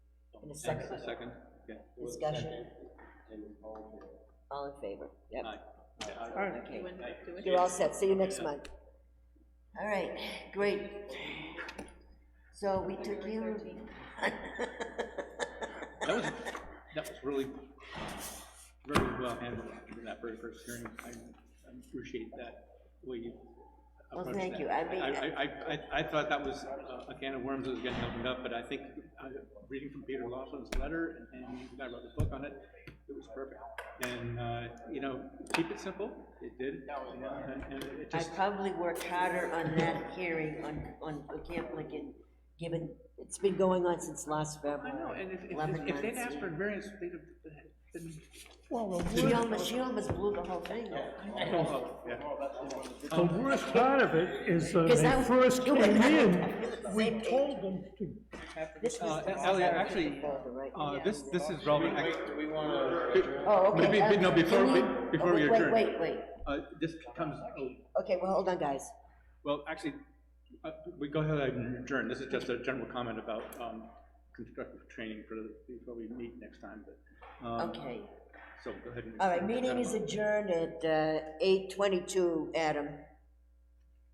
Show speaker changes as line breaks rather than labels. And a
And
second,
Second, yeah.
discussion? All in favor, yep.
Aye.
So, Okay. You're all set, see you next month. All right, great. So we took you.
That was, that was really, very well handled for that very first hearing. I I appreciate that, the way you
Well,
approached
thank
that.
you. I mean,
I, I, I, I thought that was uh, a can of worms that was getting opened up, but I think, uh, reading from Peter Lawson's letter, and and you guys wrote the book on it, it was perfect. And, uh, you know, keep it simple, it did. And- And it
I
just,
probably worked harder on that hearing on, on Camp Lincoln, given, it's been going on since last
I
February.
know, and if,
Eleven
if- if they'd
months.
asked for a variance, they'd have been.
She almost, she almost blew the whole thing down.
The worst part of it is that
Because that
they
was-
first came in, we
Same page.
told them to
This was
Uh,
the last
Elliot,
time.
actually,
Right,
uh,
yeah.
this, this is relevant, act-
Oh, okay.
Maybe- but no,
okay,
before
can
we-
you- oh,
before we
wait,
adjourn.
Wait, wait, wait.
uh, this comes, oh,
Okay, well, hold on, guys.
well, actually, uh, we go ahead and adjourn, this is just a general comment about, um, constructive training for, the- before we meet next time, but, um,
Okay.
so go ahead and.
All right, meeting is adjourned at eight uh, twenty-two, Adam.